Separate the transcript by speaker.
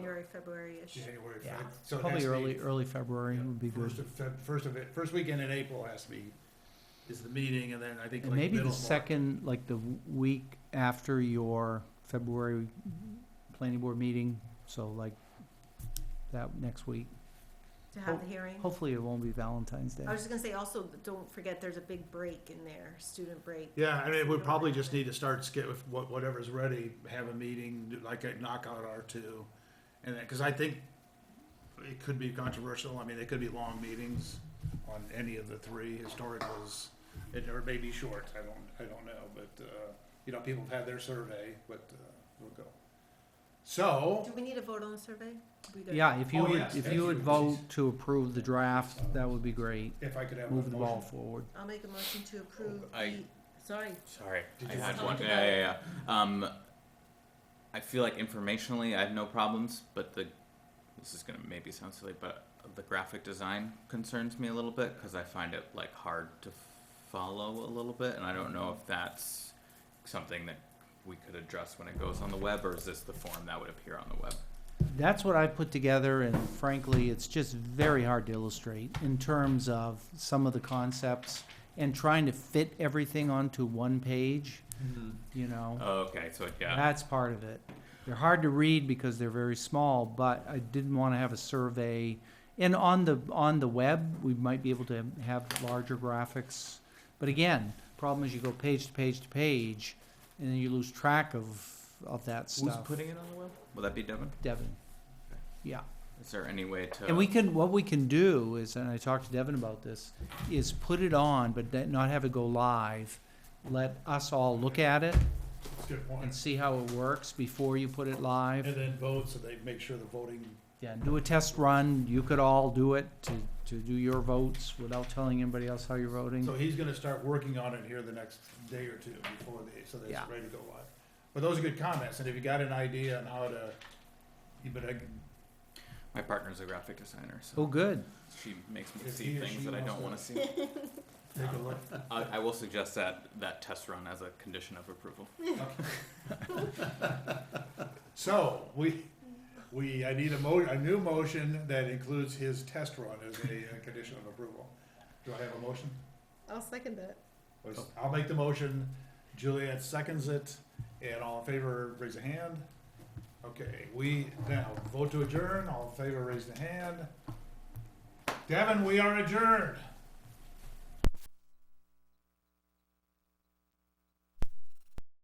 Speaker 1: January, February-ish.
Speaker 2: January,
Speaker 3: Yeah.
Speaker 2: Feb- so it has
Speaker 3: Probably
Speaker 2: to be
Speaker 3: early, early February would be
Speaker 2: First
Speaker 3: good.
Speaker 2: of Feb, first of it, first weekend in April has to be, is the meeting, and then I think
Speaker 3: And
Speaker 2: like
Speaker 3: maybe
Speaker 2: middle
Speaker 3: the
Speaker 2: of March.
Speaker 3: second, like the w- week after your February planning board meeting, so like that next week.
Speaker 1: to have
Speaker 3: Ho-
Speaker 1: the hearing.
Speaker 3: Hopefully it won't be Valentine's Day.
Speaker 1: I was just gonna say also, don't forget, there's a big break in there, student break.
Speaker 2: Yeah, I mean, we probably just need to start skip with what, whatever's ready, have a meeting, do like a knockout R two. And then, cause I think it could be controversial, I mean, it could be long meetings on any of the three historicals. It, or maybe short, I don't, I don't know, but, uh, you know, people have had their survey, but, uh, we'll go. So,
Speaker 1: Do we need a vote on the survey? We good?
Speaker 3: Yeah, if you
Speaker 2: Oh,
Speaker 3: would,
Speaker 2: yes,
Speaker 3: if
Speaker 2: thank
Speaker 3: you
Speaker 2: you.
Speaker 3: would vote to approve the draft, that would be great.
Speaker 2: if I could have a
Speaker 3: Move the ball
Speaker 2: motion.
Speaker 3: forward.
Speaker 1: I'll make a motion to approve the,
Speaker 4: I-
Speaker 1: sorry,
Speaker 4: Sorry,
Speaker 2: Did
Speaker 4: I
Speaker 2: you
Speaker 4: had
Speaker 1: want
Speaker 4: one.
Speaker 1: to-
Speaker 4: Yeah, yeah, yeah. Um, I feel like informationally, I have no problems, but the this is gonna maybe sound silly, but the graphic design concerns me a little bit because I find it like hard to follow a little bit, and I don't know if that's something that we could address when it goes on the web, or is this the form that would appear on the web?
Speaker 3: That's what I put together, and frankly, it's just very hard to illustrate in terms of some of the concepts and trying to fit everything onto one page,
Speaker 2: Mm-hmm.
Speaker 3: you know?
Speaker 4: Oh, okay, so yeah,
Speaker 3: That's part of it. They're hard to read because they're very small, but I didn't want to have a survey. And on the, on the web, we might be able to have larger graphics. But again, problem is you go page to page to page, and then you lose track of, of that
Speaker 4: who's
Speaker 3: stuff.
Speaker 4: putting it on the web? Will that be Devin?
Speaker 3: Devin. Yeah.
Speaker 4: Is there any way to?
Speaker 3: And we can, what we can do is, and I talked to Devin about this, is put it on, but then not have it go live. Let us all look at it
Speaker 2: That's a good
Speaker 3: and
Speaker 2: point.
Speaker 3: see how it works before you put it
Speaker 2: And
Speaker 3: live.
Speaker 2: then vote, so they make sure the voting,
Speaker 3: Yeah, do a test run. You could all do it to, to do your votes without telling anybody else how you're voting.
Speaker 2: so he's gonna start working on it here the next day or two before they, so that
Speaker 3: Yeah.
Speaker 2: it's ready to go live. But those are good comments, and if you got an idea on how to, you but I,
Speaker 4: My partner's a graphic designer, so
Speaker 3: Oh, good.
Speaker 4: she makes me
Speaker 2: If
Speaker 4: see
Speaker 2: he or
Speaker 4: things
Speaker 2: she
Speaker 4: that I
Speaker 2: wants
Speaker 4: don't
Speaker 2: to-
Speaker 4: want to see.
Speaker 2: take a look.
Speaker 4: I, I will suggest that, that test run as a condition of approval.
Speaker 2: So, we, we, I need a mo, a new motion that includes his test run as a uh, condition of approval. Do I have a motion?
Speaker 1: I'll second that.
Speaker 2: Was- I'll make the motion, Juliet seconds it, and all in favor, raise a hand. Okay, we now vote to adjourn, all in favor, raise the hand. Devin, we are adjourned.